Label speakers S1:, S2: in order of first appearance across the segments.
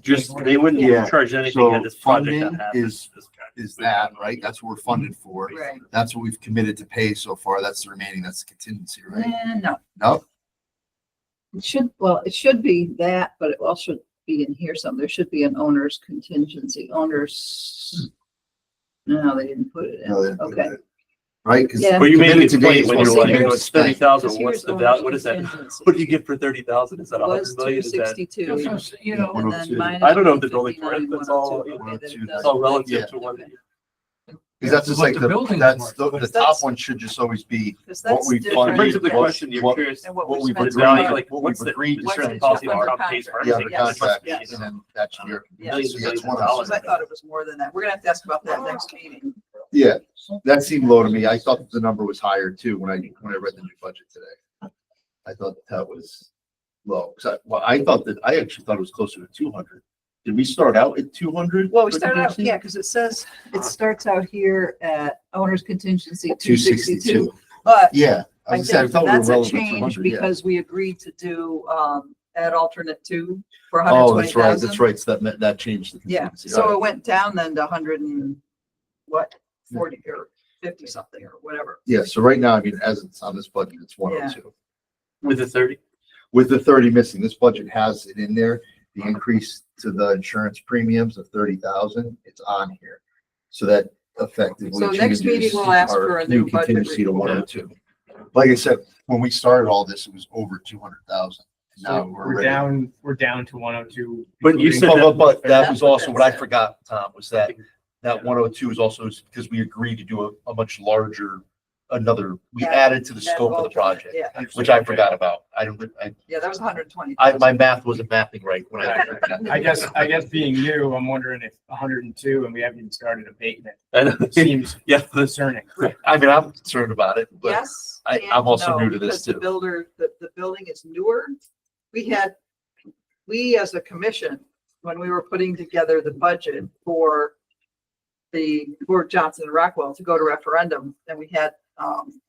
S1: Just, they wouldn't
S2: Yeah,
S1: charge anything
S2: so
S1: at this project
S2: funding
S1: that happens.
S2: is- is that, right? That's what we're funded for.
S3: Right.
S2: That's what we've committed to pay so far. That's the remaining, that's the contingency, right?
S3: Eh, no,
S2: No,
S3: it should, well, it should be that, but it also should be in here some, there should be an owner's contingency, owners. No, they didn't put it in,
S2: no, they didn't put
S3: okay.
S2: it in. Right? 'Cause
S3: Yeah.
S1: But you made a
S2: committed
S1: good
S2: today
S1: point
S2: is
S1: when
S2: what's
S1: you're like,
S2: committed
S1: you know,
S2: to
S1: it's thirty
S2: spend.
S1: thousand,
S3: Because
S1: what's
S3: here's
S1: the
S3: owner's
S1: value, what is that?
S3: contingency.
S1: What do you get for thirty thousand? Is that a
S3: Was
S1: hundred
S3: two
S1: million? Is that, oh
S3: sixty-two.
S4: That's what I'm- You know,
S3: And then
S2: 102.
S3: minus
S1: I don't know if there's only four,
S3: 159,
S1: it's all-
S3: 102. Okay, then it
S2: 102.
S1: it's
S3: doesn't-
S1: all
S2: Yeah.
S1: Oh, relative to one.
S2: Cause that's just
S4: What
S2: like
S4: the
S2: the,
S4: building's
S2: that's, the,
S4: worth.
S2: the top
S3: That's-
S2: one should just always be
S3: 'Cause
S2: what
S3: that's
S2: we
S3: different.
S1: It brings up the
S2: What-
S1: question, you're
S2: what-
S1: curious,
S3: And what
S2: what
S3: we
S2: we've
S3: spent
S1: what
S3: on
S1: value,
S2: agreed,
S3: it.
S1: like,
S2: what
S1: what's
S2: we've
S1: the,
S2: agreed
S1: is
S2: to
S1: there
S2: in
S1: a
S2: the
S1: policy that
S2: contract.
S1: Trump pays for
S2: Yeah,
S1: everything?
S2: the
S3: Yes.
S2: contract,
S1: Yes.
S2: and then that's your.
S3: Yeah.
S1: Millions
S2: contingency.
S1: and millions
S2: That's one
S1: of
S2: of
S1: dollars.
S2: them.
S3: I thought it was more than that. We're gonna have to ask about that next meeting.
S2: Yeah, that seemed low to me. I thought the number was higher too when I, when I read the new budget today. I thought that was low. 'Cause I, well, I thought that, I actually thought it was closer to two hundred. Did we start out at two hundred?
S3: Well, we started out, yeah, because it says, it starts out here at owner's contingency
S2: Two
S3: two
S2: sixty-two.
S3: sixty-two. But
S2: Yeah.
S3: I
S2: was saying,
S3: think
S2: thought we were
S3: that's
S2: well
S3: a
S2: over
S3: change
S2: 200, yeah.
S3: because we agreed to do, um, at alternate two for hundred
S2: Oh,
S3: twenty
S2: that's right, that's
S3: thousand.
S2: right. So that, meant- that changed. the
S3: Yeah,
S2: contingency.
S3: so
S2: Alright.
S3: it went down then to hundred and what, forty or fifty something or whatever.
S2: Yeah, so right now, I mean, as it's on this budget, it's one oh two.
S1: With the thirty?
S2: With the thirty missing, this budget has it in there, the increase to the insurance premiums of thirty thousand, it's on here. So that effectively.
S3: So next
S2: changes
S3: meeting, we'll ask
S2: our
S3: for a new budget
S2: Contingency to
S3: report.
S2: one oh two. Like I said, when we started all this, it was over two hundred thousand. Now
S5: So
S2: we're
S5: we're
S2: ready.
S5: down, we're down to one oh two.
S1: But you said
S2: But, but that was
S3: That's what
S2: also
S3: that
S2: what I
S3: said.
S2: forgot, Tom, was that, that one oh two is also is because we agreed to do a, a much larger, another, we
S3: Yeah,
S2: added to the
S3: That
S2: scope of the
S3: alternate,
S2: project,
S3: Yeah,
S2: which I forgot about. I don't, I,
S3: yeah, that was hundred twenty.
S2: I, my math wasn't mapping right when I.
S5: I guess, I guess being new, I'm wondering if hundred and two and we haven't even started abatement
S1: I know.
S5: seems
S1: Yeah, that's-
S5: concerning.
S2: I mean, I'm concerned about it, but
S3: Yes.
S2: I-
S3: and
S2: I'm also
S3: no,
S2: new to this
S3: because the
S2: too.
S3: Builder, the, the building is newer. We had, we as a commission, when we were putting together the budget for the, for Johnson and Rockwell to go to referendum, then we had, um,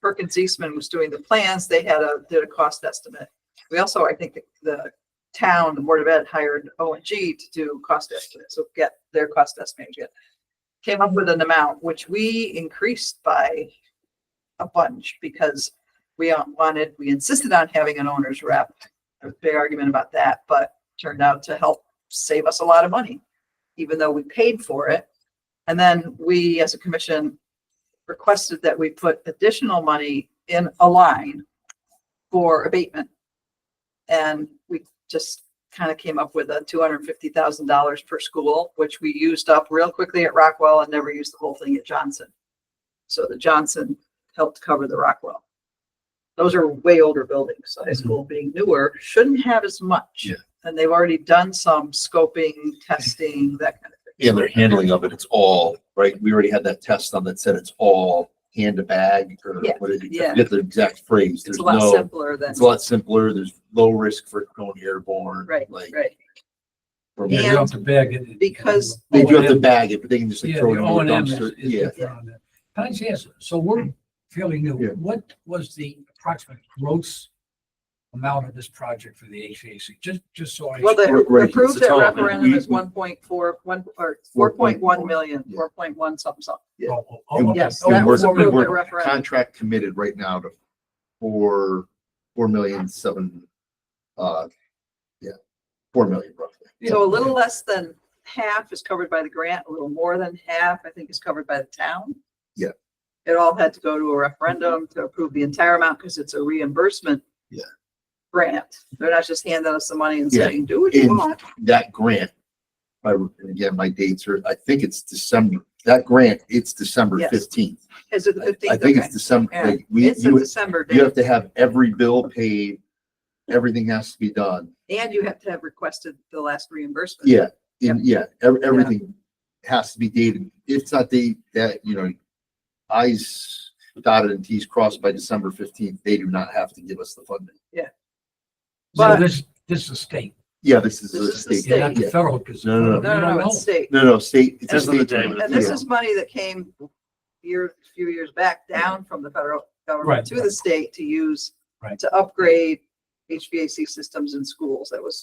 S3: Perkins Eastman was doing the plans. They had a, did a cost estimate. We also, I think, the town, the Board of Ed hired O and G to do cost estimates, so get their cost estimate, get came up with an amount which we increased by a bunch because we wanted, we insisted on having an owner's rep. There was a big argument about that, but turned out to help save us a lot of money, even though we paid for it. And then we, as a commission, requested that we put additional money in a line for abatement. And we just kind of came up with a two hundred and fifty thousand dollars per school, which we used up real quickly at Rockwell and never used the whole thing at Johnson. So the Johnson helped cover the Rockwell. Those are way older buildings. High school being newer shouldn't have as much.
S2: Mhm. Yeah.
S3: And they've already done some scoping, testing, that kind of thing.
S2: yeah, their handling of it, it's all, right? We already had that test on that said it's all hand to bag or
S3: Yeah,
S2: what is it?
S3: yeah.
S2: I forget the exact phrase.
S3: It's
S2: There's
S3: a lot
S2: no,
S3: simpler than,
S2: it's a lot simpler. There's low risk for going airborne.
S3: right,
S2: Like.
S3: right.
S2: from-
S4: You
S3: And
S4: have to beg it.
S3: because-
S2: They do have to
S4: O&M
S2: bag it, but they can just like
S4: Yeah,
S2: throw it
S4: the
S2: in
S4: O and
S2: the
S4: M is,
S2: dumpster.
S4: is
S2: Yeah.
S4: different on that. Can I just ask, so we're fairly new,
S2: Yeah.
S4: what was the approximate gross amount of this project for the HVAC? Just, just so I.
S3: Well,
S2: Right,
S3: the
S2: right, it's
S3: approved
S1: a
S3: at
S1: total, right?
S3: referendum is
S2: We- we-
S3: one point four, one, or four point
S2: 4.4,
S3: one million,
S2: yeah.
S3: four point one something, something.
S2: yeah.
S4: Oh, oh, oh, okay.
S3: Yes,
S4: Oh,
S3: that
S2: And
S3: was
S2: we're,
S4: four
S3: approved
S2: and
S4: million.
S3: at
S2: we're
S3: referendum.
S2: contract committed right now to four, four million seven, uh, yeah, four million roughly.
S3: So a little less than half is covered by the grant, a little more than half, I think, is covered by the town.
S2: Yeah.
S3: It all had to go to a referendum to approve the entire amount because it's a reimbursement.
S2: Yeah.
S3: Grant. They're not just handing us the money and
S2: Yeah.
S3: saying, do what you
S2: And-
S3: want.
S2: That grant, I, and again, my dates are, I think it's December, that grant, it's December
S3: Yes.
S2: fifteenth.
S3: Is it the
S2: I I
S3: fifteenth?
S2: think it's December,
S3: Yeah.
S2: like, we,
S3: It's a
S2: you,
S3: December
S2: you
S3: date
S2: have to have every bill paid, everything has to be done.
S3: and you have to have requested the last reimbursement.
S2: Yeah, and yeah, ev- everything has to be dated. If it's not dated, that, you know, I's dotted and T's crossed by December fifteenth, they do not have to give us the funding.
S4: So
S3: But-
S4: this, this is state,
S2: Yeah, this is
S3: This
S2: a
S3: is the
S2: state.
S3: state.
S4: yeah, not the
S2: yeah.
S4: federal, because.
S2: No, no, no.
S3: No, no, no, it's state.
S2: No, no, state. it's a
S1: Ends of the
S2: state
S1: day,
S2: grant.
S1: but
S3: And this is money that came year, few years back down from the federal
S4: Right.
S3: government to the state to use
S4: Right.
S3: to upgrade HVAC systems in schools. That was